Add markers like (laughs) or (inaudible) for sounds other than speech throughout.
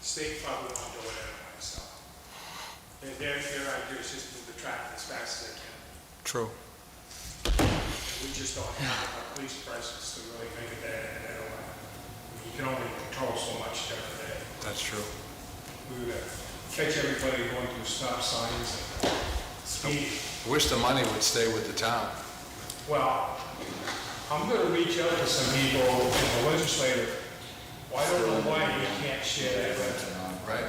state probably won't do it anyway, so. Their, their their idea is just move the traffic as fast as they can. True. And We just don't have a police presence to really make it that, that way. You can only control so much during the day. That's true. We would uh, catch everybody going through stop signs and speed. Wish the money would stay with the town. Well, I'm gonna reach out to some people in the legislature. Well, I don't know why you can't share that revenue. Right.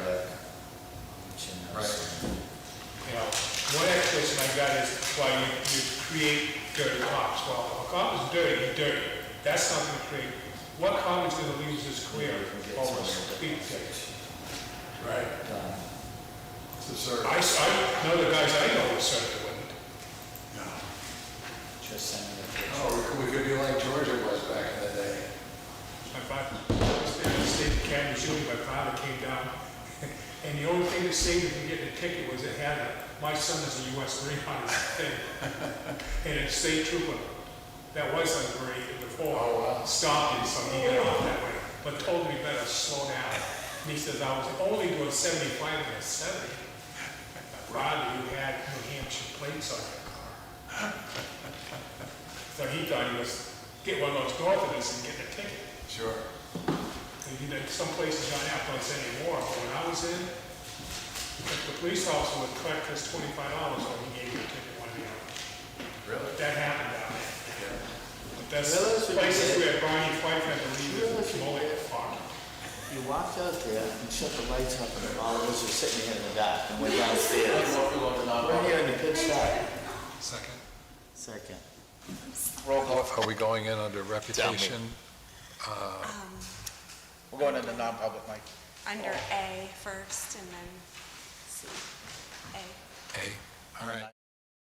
Right. You know, one explanation I got is, well, you, you create dirty cops. Well, if a cop is dirty, he's dirty. That's not gonna create, what cop is gonna lose his career over a speed ticket? Right. I, s- I know the guys I know who certainly wouldn't. Just send me a picture. Oh, we could- we could be like Georgia was back in the day. My father, I was there in the state of Kalamazoo, my father came down, (laughs) and the only thing that saved him from getting a ticket was it had a, my son is a US Marine on his thing, and a state trooper, that was like Marine before, stopped him, so he got off that way, but told me better slow down. And he says, I was only doing seventy-five and a seventy. Father, you had New Hampshire plates on your car. So he thought he was, get one of those Northerners and get a ticket. Sure. And you know, some places don't have those anymore, but when I was in, if the police officer would collect us twenty-five dollars when he gave you a ticket one day. Really? But that happened down there. But That's Really? So you places did? where Barney Fife had to leave Really? his mullet parked. You walked out there and shut the lights up and all of us were sitting here in the dark and went downstairs. We're here in the pitch dark. Second. Second. Are we going in under reputation? We're going into non-public, Mike. under A first and then C. A. A. All right.